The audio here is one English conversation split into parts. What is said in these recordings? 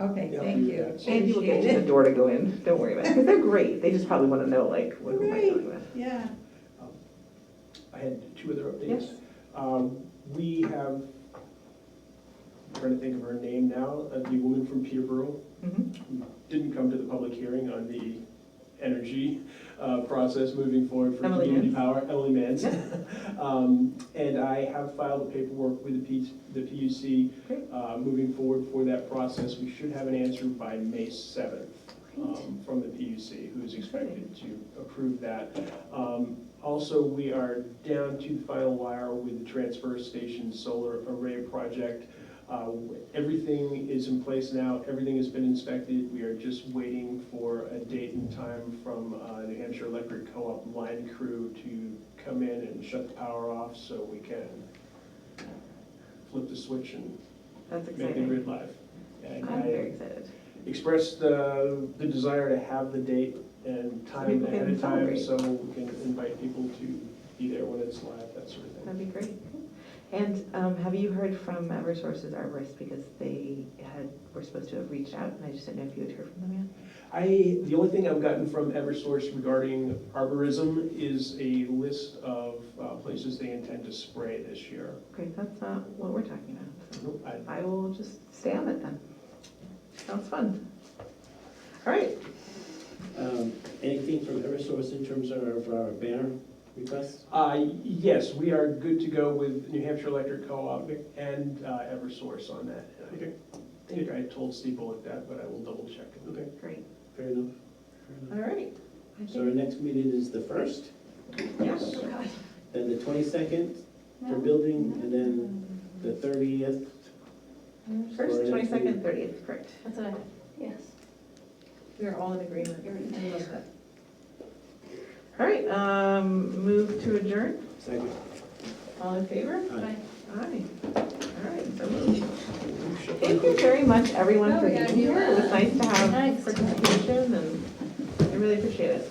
Okay, Yeah. thank you. Maybe we'll get to the Appreciate it. door to go in, don't worry about it, 'Cause they're great, they just probably wanna know, like, what am I dealing with? Yeah, I had two other updates. Yes. Um, We have, I'm trying to think of her name now, uh, the woman from Peterborough Mhm. who didn't come to the public hearing on the energy uh, process moving forward for Emily community Mans. power. Emily Mans. Um, And I have filed the paperwork with the P- the PUC Great. uh, moving forward for that process. We should have an answer by May 7th Great. um, from the PUC, who is expected to approve that. Um, Also, we are down to the final wire with the transfer station solar array project. Uh, Everything is in place now, everything has been inspected, we are just waiting for a date and time from uh, New Hampshire Electric Co-op line crew to come in and shut the power off so we can flip the switch and That's make the exciting, grid live. And I- I'm very excited. expressed the, the desire to have the date and time people ahead can of time, so celebrate. we can invite people to be there when it's live, that sort of thing. That'd be great. And um, have you heard from Eversource's arborist, because they had, were supposed to have reached out, and I just didn't know if you had heard from them yet? I, the only thing I've gotten from Eversource regarding arborism is a list of uh, places they intend to spray this year. Great, that's not what we're talking about, so Nope, I- I will just stay on it then. Sounds fun. All right, Um, Anything from Eversource in terms of our banner requests? Uh, yes, we are good to go with New Hampshire Electric Co-op and uh, Eversource on that. Okay. I think I told Steve Bullock that, but I will double check. Okay. great, Fair enough. Fair enough. all right. I So our think, next meeting is the first, yes, then the twenty-second for No. building, and then the thirtieth. first, twenty-second, thirtieth, correct. that's what I, yes. We are all in agreement. I love that. All right, um, move to adjourn, Second. all in favor? Aye. Aye, all right, so moved. Thank you very much, everyone, No, for we being gotta do here. It was that. nice to have Nice. participation, and I really appreciate it.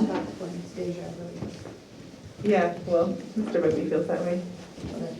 About Wednesday, I believe. Yeah, well, Mr. Whitby feels that way. Well,